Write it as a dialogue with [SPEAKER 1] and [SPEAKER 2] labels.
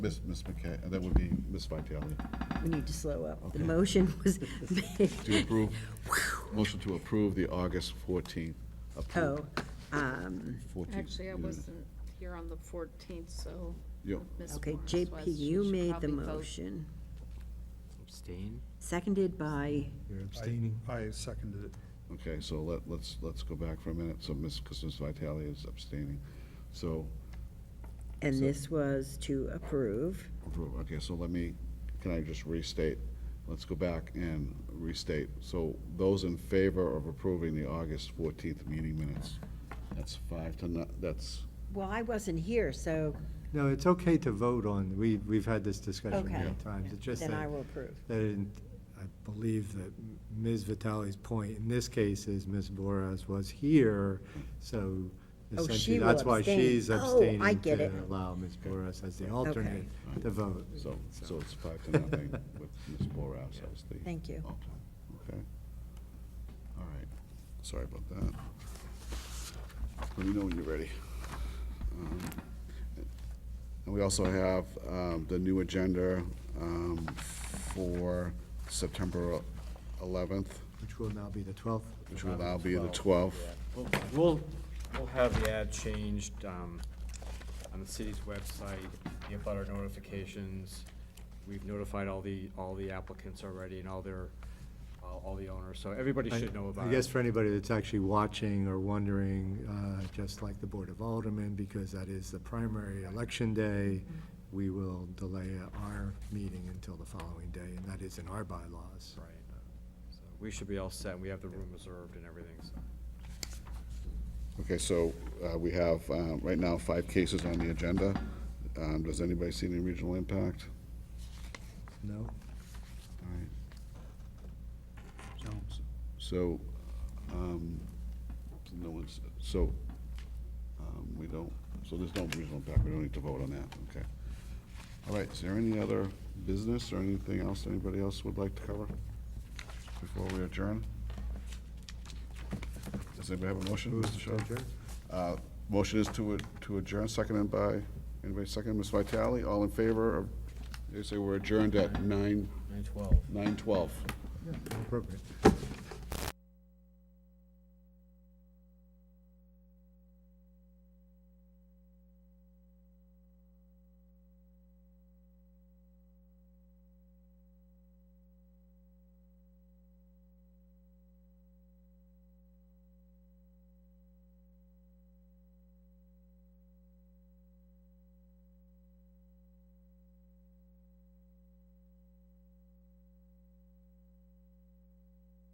[SPEAKER 1] Miss, Miss McKay, that would be Miss Vitale.
[SPEAKER 2] We need to slow up.
[SPEAKER 1] Okay.
[SPEAKER 2] The motion was made.
[SPEAKER 1] To approve, motion to approve the August 14th.
[SPEAKER 2] Oh,
[SPEAKER 1] approved
[SPEAKER 2] um,
[SPEAKER 1] 14th
[SPEAKER 3] Actually, I
[SPEAKER 1] minute.
[SPEAKER 3] wasn't here on the 14th, so.
[SPEAKER 1] Yeah.
[SPEAKER 3] Ms.
[SPEAKER 2] okay,
[SPEAKER 3] Morris
[SPEAKER 2] JP,
[SPEAKER 3] was.
[SPEAKER 2] you
[SPEAKER 3] She should
[SPEAKER 2] made the
[SPEAKER 3] probably vote.
[SPEAKER 2] motion,
[SPEAKER 4] Abstain?
[SPEAKER 2] seconded by,
[SPEAKER 5] You're abstaining. I seconded it.
[SPEAKER 1] Okay, so let, let's, let's go back for a minute. So Miss, because Miss Vitale is abstaining. So,
[SPEAKER 2] and
[SPEAKER 1] So-
[SPEAKER 2] this was to approve.
[SPEAKER 1] approve. okay, so let me, can I just restate? Let's go back and restate. So those in favor of approving the August 14th meeting minutes, that's five to, no- that's,
[SPEAKER 2] Well, I wasn't here, so
[SPEAKER 5] No, it's okay to vote on, we, we've had this discussion
[SPEAKER 2] Okay.
[SPEAKER 5] many times. It's just
[SPEAKER 2] then I
[SPEAKER 5] that,
[SPEAKER 2] will approve.
[SPEAKER 5] that in- I believe that Ms. Vitale's point in this case is Ms. Boras was here, so
[SPEAKER 2] Oh, she
[SPEAKER 5] essentially,
[SPEAKER 2] will
[SPEAKER 5] that's why
[SPEAKER 2] abstain.
[SPEAKER 5] she's
[SPEAKER 2] Oh, I
[SPEAKER 5] abstaining
[SPEAKER 2] get it.
[SPEAKER 5] to allow Ms. Boras as the alternate to vote.
[SPEAKER 1] so, so it's five to nothing with Ms. Borous as the.
[SPEAKER 2] Thank you.
[SPEAKER 1] alternate. Okay. All right, sorry about that. Let me know when you're ready. Um, And we also have um, the new agenda um, for September 11th,
[SPEAKER 5] Which will now be the 12th.
[SPEAKER 1] which will now be the 12th.
[SPEAKER 4] We'll- We'll, we'll have the ad changed um, on the city's website, the abutter notifications. We've notified all the, all the applicants already and all their, all all the owners, so everybody
[SPEAKER 5] I-
[SPEAKER 4] should know about it.
[SPEAKER 5] I guess for anybody that's actually watching or wondering, uh, just like the Board of Aldermen, because that is the primary election day, we will delay our meeting until the following day, and that is in our bylaws.
[SPEAKER 4] Right. uh, So We should be all set, and we have the room reserved and everything, so.
[SPEAKER 1] Okay, so uh, we have, um, right now, five cases on the agenda. Um, Does anybody see any regional impact?
[SPEAKER 5] No?
[SPEAKER 1] All right. So, um, no one's, so, um, we don't, so there's no regional impact, we don't need to vote on that, okay. All right, is there any other business or anything else anybody else would like to cover before we adjourn? Does anybody have a motion, Mr. Shaw?
[SPEAKER 5] adjourn.
[SPEAKER 1] Uh, motion is to, ad- to adjourn, seconded by, anybody second, Ms. Vitale, all in favor of, they say we're adjourned at nine,
[SPEAKER 4] Nine twelve.
[SPEAKER 1] nine twelve.
[SPEAKER 5] Appropriate.